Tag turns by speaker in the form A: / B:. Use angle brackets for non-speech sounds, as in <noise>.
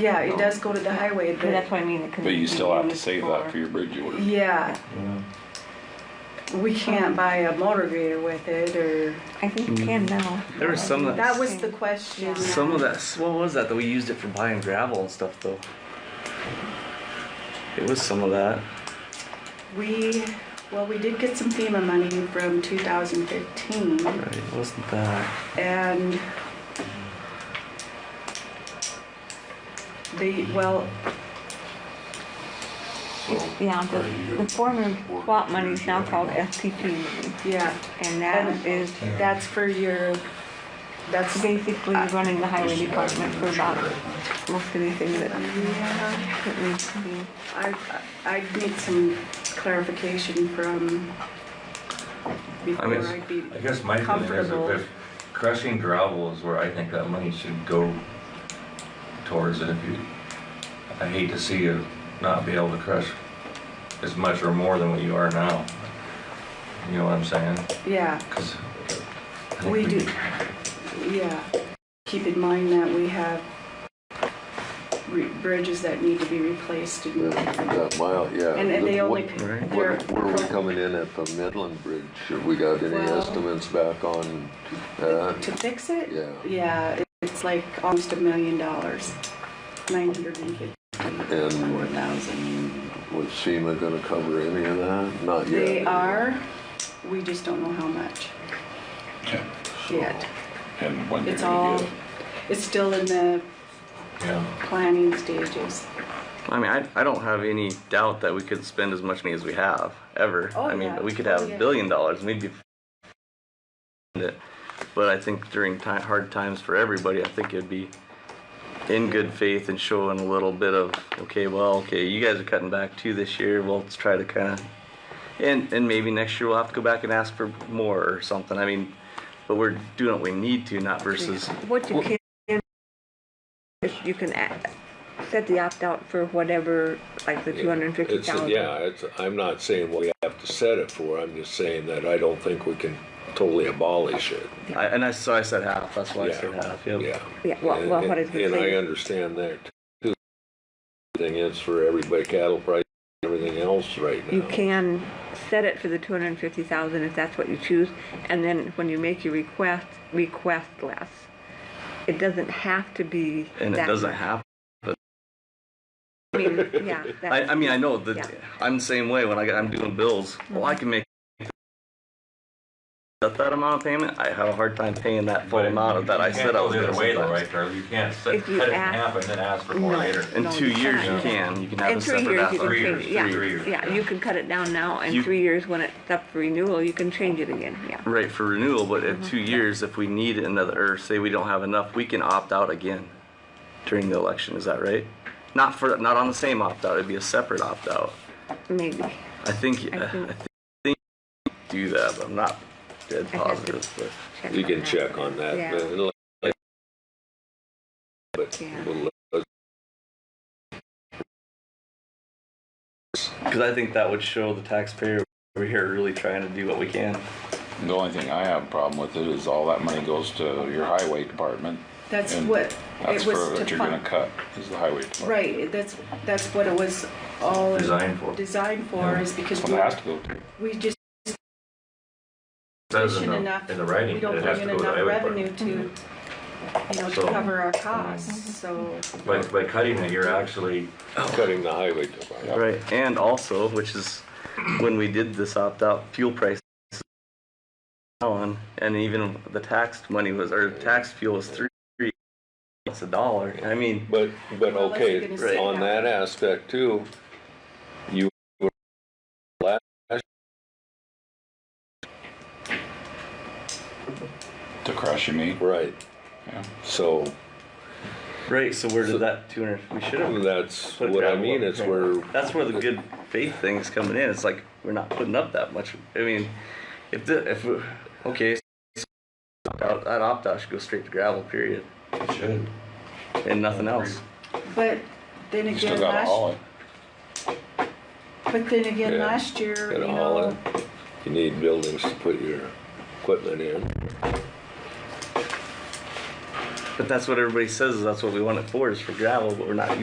A: Yeah, it does go to the highway,
B: And that's
A: but,
B: what I mean. it could
C: But you
B: be
C: still have to
B: used
C: save that for your bridge order.
A: yeah,
D: Yeah.
A: we can't buy a motor grader with it, or,
B: I think you can now.
E: Mm. There was some of
A: that was the question.
E: Some of that, what was that? That we used it for buying gravel and stuff, though. It was some of that.
A: We, well, we did get some FEMA money from two thousand fifteen,
E: Right? It wasn't that?
A: and the, well,
B: Yeah, the, the former swap money is now called STP money,
A: yeah,
B: and that is
A: that's for your, that's,
B: basically running the highway department for about most anything that,
A: yeah.
B: that needs to be.
A: I, I I'd need some clarification from before
D: mean,
A: I'd be,
F: I guess my feeling is
A: Comfortable.
F: if- if crushing gravel is where I think that money should go towards, and if you, I hate to see you not be able to crush as much or more than what you are now. You know what I'm saying?
A: yeah,
F: 'Cause I think
A: We do.
F: could-
A: yeah. Keep in mind that we have re- bridges that need to be replaced and,
G: That mile, yeah.
A: and, and they
G: What-
A: only,
E: Right.
A: they're,
G: What, what are we coming in at the Midland Bridge? Have we got any
A: Well-
G: estimates back on that?
A: to fix it?
G: Yeah,
A: Yeah, it's like almost a million dollars, nine hundred and fifty, four
G: and
A: thousand.
G: was SEMA gonna cover any of that? Not yet.
A: They are, we just don't know how much
C: Yeah.
A: yet.
C: And when they're
A: It's all,
C: gonna get it.
A: it's still in the
F: Yeah.
A: planning stages.
E: I mean, I, I don't have any doubt that we could spend as much money as we have ever.
A: Oh,
E: I mean,
A: yeah.
E: we could
A: Oh,
E: have
A: yeah.
E: a billion dollars and we'd be. f***ing it. But I think during ti- hard times for everybody, I think it'd be in good faith and showing a little bit of okay, well, okay, you guys are cutting back too this year. Well, let's try to kind of and and maybe next year we'll have to go back and ask for more or something. I mean, but we're doing what we need to, not versus
B: What you can, is you can act, set the opt-out for whatever, like the two hundred and fifty
H: It's,
B: thousand.
H: yeah, it's, I'm not saying we have to set it for, I'm just saying that I don't think we can totally abolish it.
E: I, and I so I said half. That's why I said
H: Yeah.
E: half. Yep.
H: Yeah.
B: Yeah, well, well, what is
H: And
B: the
H: and I
B: thing?
H: understand that too. Thing is for everybody, cattle price, everything else right now.
B: You can set it for the two hundred and fifty thousand if that's what you choose, and then when you make your request, request less. It doesn't have to be that.
E: and it doesn't happen.
B: I mean, yeah.
E: <laughs> I,
B: that's-
E: I mean, I know that
B: Yeah. Mm-hmm.
E: I'm the same way when I got, I'm doing bills. Well, I can make that, that amount of payment. I have a hard time paying that full
F: But
E: amount of that I
F: you
E: said I was
F: can't
E: going to
F: go the other way though, right, Charlie? You can't sit-
B: If you
F: cut it in
B: ask-
F: half and then ask for more
B: No.
F: later.
E: In
B: No,
E: two
B: you
E: years, you
B: cannot.
E: can. You can have
B: In
E: a
B: three years,
E: separate
B: you can
E: after.
F: Three
B: change,
F: years, three
B: yeah,
F: years.
B: yeah, you can cut it down now, and
E: You-
B: three years when it's up for renewal, you can Mm-hmm. change it again, yeah.
E: Right for renewal, but in two years, if we need another, or say we don't have enough, we can opt out again during the election. Is that right? Not for not on the same opt out. It'd be a separate opt out.
B: Maybe.
E: I think
B: I
E: Uh, I
B: think-
E: think, I think you do that, but I'm not dead
B: I have to-
E: positive. But.
H: You can check on that.
B: Yeah.
H: but it'll- But
B: Yeah.
H: we'll let-
E: Because I think that would show the taxpayer we're here really trying to do what we can.
C: The only thing I have a problem with it is all that money goes to your highway department.
A: That's
C: and
A: what
C: That's
A: it
C: for
A: was
C: what
A: to
C: you're gonna
A: fund.
C: cut, is the highway department.
A: Right, that's, that's what it was all
F: Designed for.
A: designed for, is because
C: That's what it has to go to.
A: we, we just
F: Says in
A: isn't
F: the-
A: enough,
F: In
A: we
F: the writing,
A: don't
F: that it
A: bring
F: has
A: in
F: to go to the
A: enough
F: highway department.
A: revenue to, you know, to
F: So-
A: cover our costs, so.
F: By, by cutting it, you're actually
H: cutting the highway department.
E: Right. And also, which is when we did this opt out, fuel prices on, and even the taxed money was, or taxed fuel was three, it's a dollar. I mean,
H: But, but
A: Well, unless you're
H: okay,
A: gonna say
H: on
A: that.
H: that aspect too, you were last,
C: To crush, you mean?
H: right.
C: Yeah.
H: So
E: right. So where did that 200? We should have.
H: that's
E: put
H: what I
E: gravel
H: mean,
E: up.
H: it's where,
E: That's where the good faith thing's coming in. It's like we're not putting up that much. I mean, if the if okay, so opt out- that opt out should go straight to gravel. Period,
F: should.
E: and nothing else.
A: But then
C: You still
A: again,
C: gotta haul
A: last,
C: it.
A: but then again,
H: Yeah.
A: last year, you
H: Gotta haul
A: know,
H: you need buildings to put your equipment in.
E: But that's what everybody says, is that's what we want it for, is for gravel, but we're not